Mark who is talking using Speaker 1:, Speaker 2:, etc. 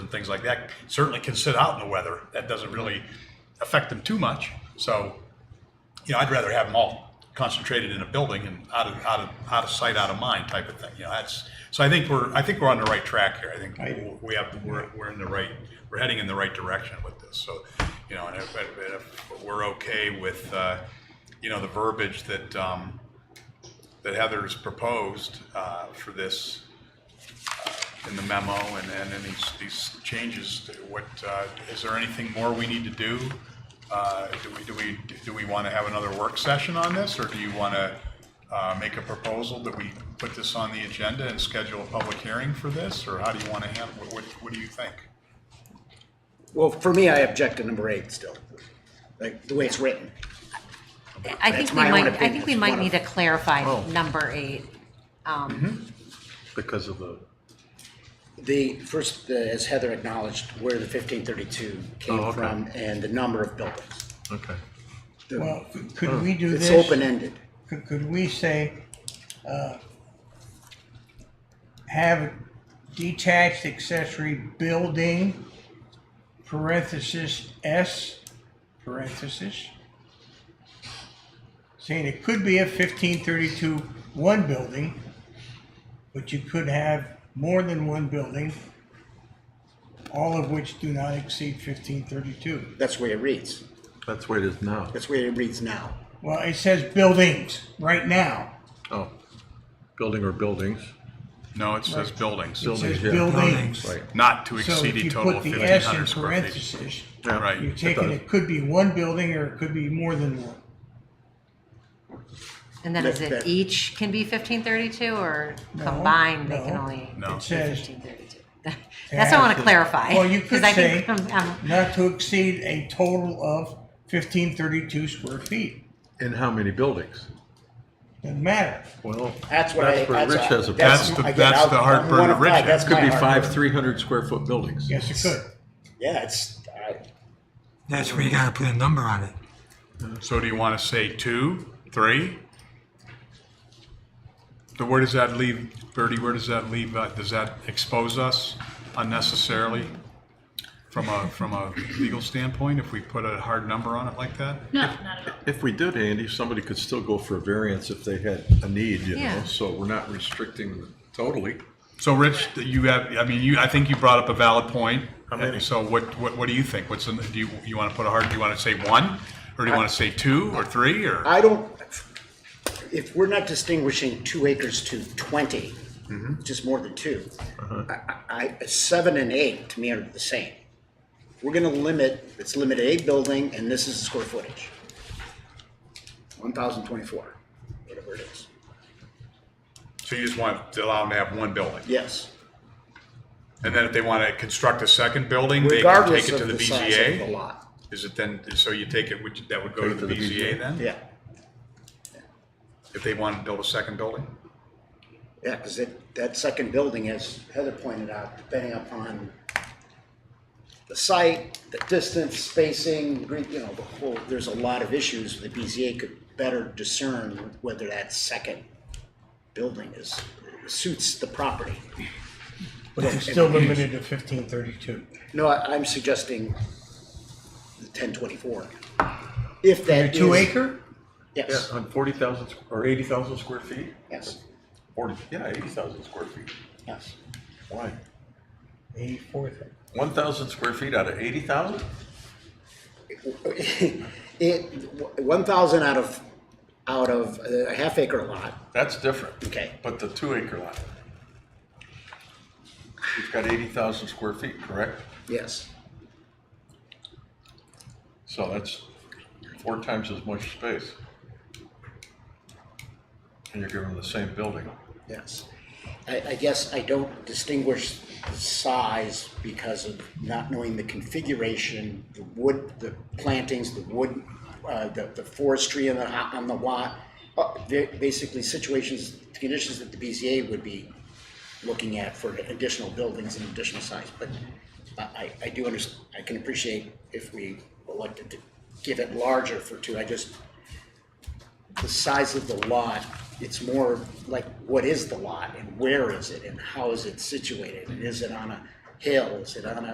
Speaker 1: and things like that certainly can sit out in the weather. That doesn't really affect them too much. So, you know, I'd rather have them all concentrated in a building and out of, out of, out of sight, out of mind type of thing. You know, that's, so I think we're, I think we're on the right track here. I think we have, we're, we're in the right, we're heading in the right direction with this. So, you know, and if, and if we're okay with, uh, you know, the verbiage that, um, that Heather's proposed, uh, for this, in the memo and, and in these, these changes, what, uh, is there anything more we need to do? Uh, do we, do we, do we want to have another work session on this, or do you want to, uh, make a proposal that we put this on the agenda and schedule a public hearing for this, or how do you want to handle, what, what, what do you think?
Speaker 2: Well, for me, I object to number eight still, like the way it's written.
Speaker 3: I think
Speaker 2: That's
Speaker 3: we
Speaker 2: my own
Speaker 3: might, I
Speaker 2: opinion.
Speaker 3: think we
Speaker 2: It's
Speaker 3: might
Speaker 2: one of- Oh.
Speaker 3: need to clarify number eight.
Speaker 4: because of the,
Speaker 2: The first, the- as Heather acknowledged, where the fifteen thirty-two
Speaker 4: Oh,
Speaker 2: came
Speaker 4: okay.
Speaker 2: from and the number of buildings.
Speaker 4: okay.
Speaker 2: The-
Speaker 5: Well, could we do this?
Speaker 2: It's open-ended.
Speaker 5: Could, could we say, uh, have detached accessory building, parenthesis, S, parenthesis? Saying it could be a fifteen thirty-two one building, but you could have more than one building, all of which do not exceed fifteen thirty-two.
Speaker 2: That's the way it reads.
Speaker 4: That's where it is now.
Speaker 2: That's the way it reads now.
Speaker 5: Well, it says buildings right now.
Speaker 4: Oh, building or buildings.
Speaker 1: No, it says buildings,
Speaker 5: It says
Speaker 4: Buildings, yeah.
Speaker 5: buildings.
Speaker 4: Right.
Speaker 1: not to
Speaker 5: So
Speaker 1: exceed
Speaker 5: if
Speaker 1: a
Speaker 5: you
Speaker 1: total
Speaker 5: put
Speaker 1: of
Speaker 5: the
Speaker 1: fifteen
Speaker 5: S in
Speaker 1: hundred square feet.
Speaker 5: parentheses,
Speaker 4: Yeah.
Speaker 1: Right.
Speaker 5: you're
Speaker 1: It
Speaker 5: taking,
Speaker 4: does.
Speaker 5: it could be one building or it could be more than one.
Speaker 3: And then is
Speaker 2: That-
Speaker 3: it
Speaker 2: that-
Speaker 3: each can be fifteen thirty-two or
Speaker 5: No,
Speaker 3: combined, they can
Speaker 5: no.
Speaker 3: only
Speaker 1: No.
Speaker 5: It
Speaker 3: be
Speaker 5: says
Speaker 3: fifteen thirty-two? That's what I want to
Speaker 5: Yeah.
Speaker 3: clarify.
Speaker 5: Well, you
Speaker 3: 'cause
Speaker 5: could
Speaker 3: I think
Speaker 5: say-
Speaker 3: I'm- I'm-
Speaker 5: not to exceed a total of fifteen thirty-two square feet.
Speaker 4: And how many buildings?
Speaker 5: Doesn't matter.
Speaker 4: Well,
Speaker 2: That's what I.
Speaker 4: where Rich has a,
Speaker 1: that's-
Speaker 4: problem.
Speaker 1: the-
Speaker 2: again,
Speaker 1: that's
Speaker 2: I'll-
Speaker 1: the heartburn
Speaker 2: one
Speaker 1: of
Speaker 2: five,
Speaker 1: Rich.
Speaker 2: that's
Speaker 4: could
Speaker 2: my
Speaker 4: be
Speaker 2: heartburn.
Speaker 4: five, three hundred square foot buildings.
Speaker 5: Yes, it could.
Speaker 2: Yeah, it's, I,
Speaker 6: That's where you gotta put a number on it.
Speaker 1: So do you want to say two, three? So where does that leave, Bertie, where does that leave, uh, does that expose us unnecessarily from a, from a legal standpoint if we put a hard number on it like that?
Speaker 4: If we did, Andy, somebody could still go for a variance if they had a need, you know,
Speaker 3: Yeah.
Speaker 4: so we're not restricting totally.
Speaker 1: So Rich, you have, I mean, you, I think you brought up a valid point.
Speaker 4: How many?
Speaker 1: So what, what, what do you think? What's, the- do you, you want to put a hard, do you want to say one? Or do you want to say two or three or?
Speaker 2: I don't, if we're not distinguishing two acres to twenty, just more than two,
Speaker 1: Uh-huh.
Speaker 2: I, I, I- seven and eight to me are the same. We're gonna limit, it's limited eight building, and this is the square footage. One thousand twenty-four, whatever it is,
Speaker 1: So you just want to allow them to have one building?
Speaker 2: yes.
Speaker 1: And then if they want to construct a second building, they can
Speaker 2: Regardless
Speaker 1: take it to
Speaker 2: of
Speaker 1: the
Speaker 2: the size of the
Speaker 1: BZA?
Speaker 2: lot,
Speaker 1: Is it then, so you take it, would you- that would go to
Speaker 4: Take
Speaker 1: the BZA then?
Speaker 2: yeah,
Speaker 1: If they want to build a second building?
Speaker 2: yeah, cause that, that second building, as Heather pointed out, depending upon the site, the distance, spacing, green- you know, the whole, there's a lot of issues. The BZA could better discern whether that second building is, suits the property.
Speaker 5: But it's still limited to fifteen thirty-two.
Speaker 2: No, I, I'm suggesting the ten twenty-four. If that is.
Speaker 5: Two acre?
Speaker 4: Yeah,
Speaker 2: Yes,
Speaker 4: on forty thousand or eighty thousand square feet?
Speaker 2: yes,
Speaker 4: Forty, yeah, eighty thousand square feet.
Speaker 2: yes.
Speaker 4: Why?
Speaker 5: Eighty-four.
Speaker 4: One thousand square feet out of eighty thousand?
Speaker 2: It, one thousand out of, out of a half acre lot,
Speaker 4: That's different.
Speaker 2: Okay.
Speaker 4: But the two acre lot. You've got eighty thousand square feet, correct?
Speaker 2: yes.
Speaker 4: So that's four times as much space. And you're giving them the same building.
Speaker 2: Yes. I, I guess I don't distinguish the size because of not knowing the configuration, the wood, the plantings, the wood, uh, the, the forestry on the, on the lot. Uh, ba- Basically situations, conditions that the BZA would be looking at for additional buildings and additional size. But I, I- I do underst, I can appreciate if we elected to give it larger for two. I just, the size of the lot, it's more like what is the lot and where is it and how is it situated? And is it on a hill? Is it on a